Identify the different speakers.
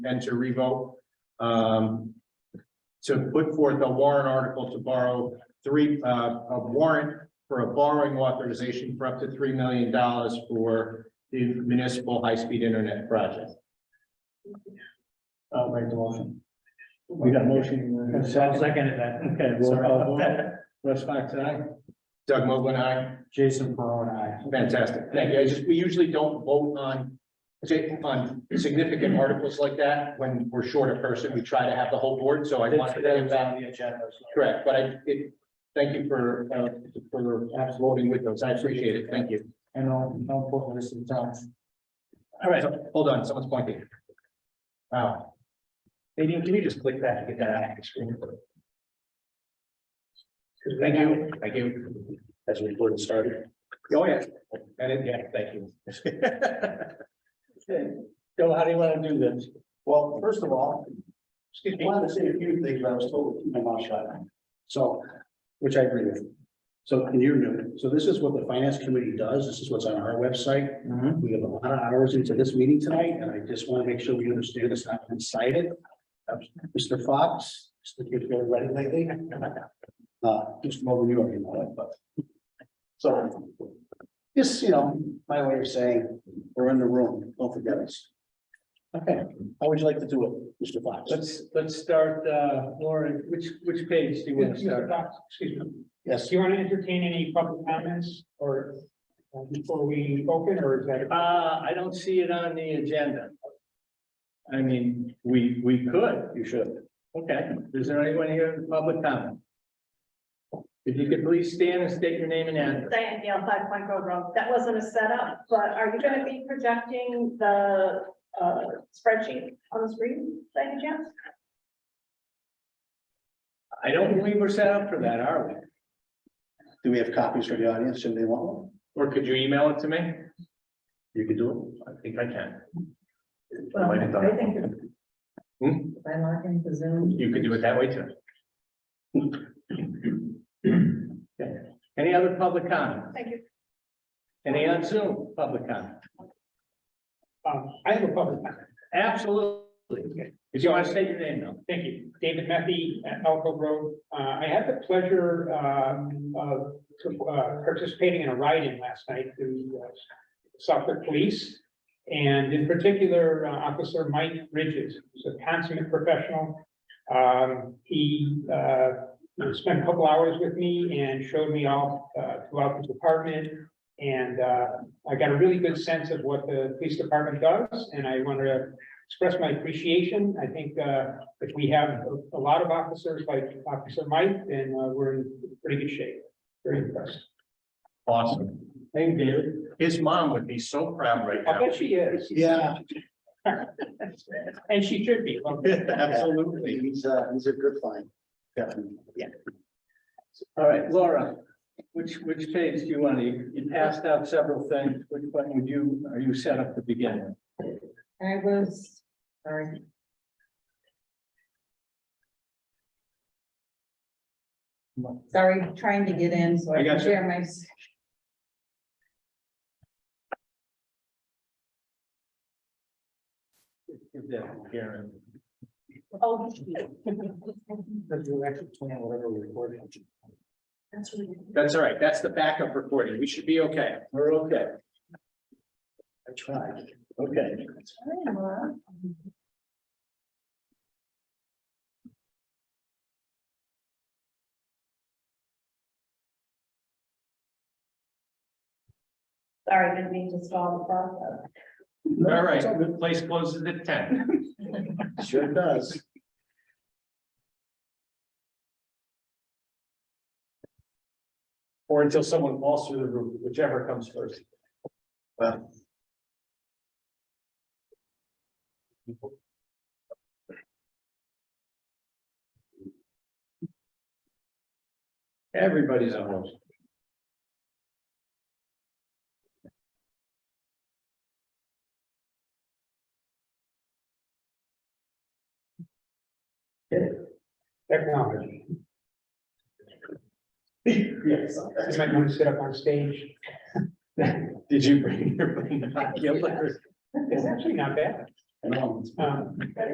Speaker 1: venture revote. Um, to put forth a warrant article to borrow three, uh, a warrant for a borrowing authorization for up to three million dollars for the municipal high-speed internet project.
Speaker 2: I'll make the motion. We got a motion. I'll second that. Okay, roll call vote. Russ Fox, aye.
Speaker 1: Doug Mogul, aye.
Speaker 2: Jason Peron, aye.
Speaker 1: Fantastic. Thank you. I just, we usually don't vote on, on significant articles like that. When we're short a person, we try to have the whole board, so I wanted to give that.
Speaker 2: the agenda.
Speaker 1: Correct, but I, it, thank you for, uh, for voting with those. I appreciate it. Thank you.
Speaker 2: And I'll, I'll put this in town.
Speaker 1: All right, hold on, someone's pointing.
Speaker 2: Oh.
Speaker 1: Wow. Nadine, can you just click that to get that out of the screen? Thank you, thank you. As we recording started. Oh, yeah. And it, yeah, thank you.
Speaker 2: Okay, Joe, how do you want to do this? Well, first of all, excuse me, I wanted to say a few things, but I was told to keep my mouth shut. So, which I agree with. So, and you're new, so this is what the finance committee does, this is what's on our website.
Speaker 3: Mm-hmm.
Speaker 2: We have a lot of hours into this meeting tonight, and I just want to make sure we understand it's not incited. Mr. Fox, Mr. You've been ready lately. Uh, just more you already know it, but. So, this, you know, my way of saying, we're in the room, don't forget us. Okay, how would you like to do it, Mr. Fox?
Speaker 3: Let's, let's start, uh, Lauren, which, which page do you want to
Speaker 2: Mr.
Speaker 3: start?
Speaker 2: Fox, Excuse me, yes,
Speaker 3: Do you want to entertain any public comments or uh, before we open or is that? Uh, I don't see it on the agenda. I mean, we, we could.
Speaker 2: you should.
Speaker 3: Okay, is there anyone here in public comment? If you could please stand and state your name and address.
Speaker 4: Diane Gale, Five Point Grove Road. That wasn't a setup, but are you gonna be projecting the uh, spreadsheet on the screen, by any chance?
Speaker 3: I don't believe we're set up for that, are we?
Speaker 2: Do we have copies for the audience, should they want one?
Speaker 3: Or could you email it to me?
Speaker 2: You can do
Speaker 3: I think I can.
Speaker 5: Well,
Speaker 3: Might have done
Speaker 5: I
Speaker 3: it.
Speaker 5: think if
Speaker 3: Hmm?
Speaker 5: if I log into Zoom,
Speaker 3: You could do it that way too. Okay. Any other public comment?
Speaker 4: Thank you.
Speaker 3: Any on Zoom public comment?
Speaker 6: Um, I have a public comment.
Speaker 3: Absolutely. If you want to state your name though.
Speaker 6: Thank you. David Murphy at Elko Road. Uh, I had the pleasure, um, of, uh, participating in a ride-in last night to uh, Suffolk Police. And in particular, uh, Officer Mike Ridges, who's a consummate professional. Um, he, uh, spent a couple hours with me and showed me all, uh, throughout the department. And, uh, I got a really good sense of what the police department does, and I wanted to express my appreciation. I think uh, if we have a- a lot of officers like Officer Mike, then uh, we're in pretty good shape. Very impressed.
Speaker 1: Awesome.
Speaker 3: Thank you.
Speaker 1: His mom would be so proud right
Speaker 6: I
Speaker 1: now.
Speaker 6: bet she is.
Speaker 2: Yeah.
Speaker 6: And she should be.
Speaker 1: Absolutely.
Speaker 2: He's uh, he's a good find. Definitely. Yeah.
Speaker 3: All right, Laura, which, which page do you want to, you passed out several things. Which one would you, are you set up to begin with?
Speaker 5: I was, sorry. Sorry, trying to get in, so
Speaker 3: I
Speaker 5: I can
Speaker 3: gotcha.
Speaker 5: share my. s-
Speaker 3: Give that to Karen.
Speaker 4: Oh,
Speaker 1: That's all right. That's the backup recording. We should be okay.
Speaker 3: We're okay.
Speaker 2: I tried.
Speaker 3: Okay.
Speaker 4: Sorry, didn't mean to stall the process.
Speaker 1: All right, the place closes at ten.
Speaker 2: Sure does.
Speaker 1: Or until someone falls through the roof, whichever comes first.
Speaker 3: Everybody's on. board.
Speaker 6: Technology.
Speaker 3: Yes.
Speaker 6: You might want to sit up on stage.
Speaker 1: Did you bring your?
Speaker 6: It's actually not bad.
Speaker 2: I know.
Speaker 6: Um,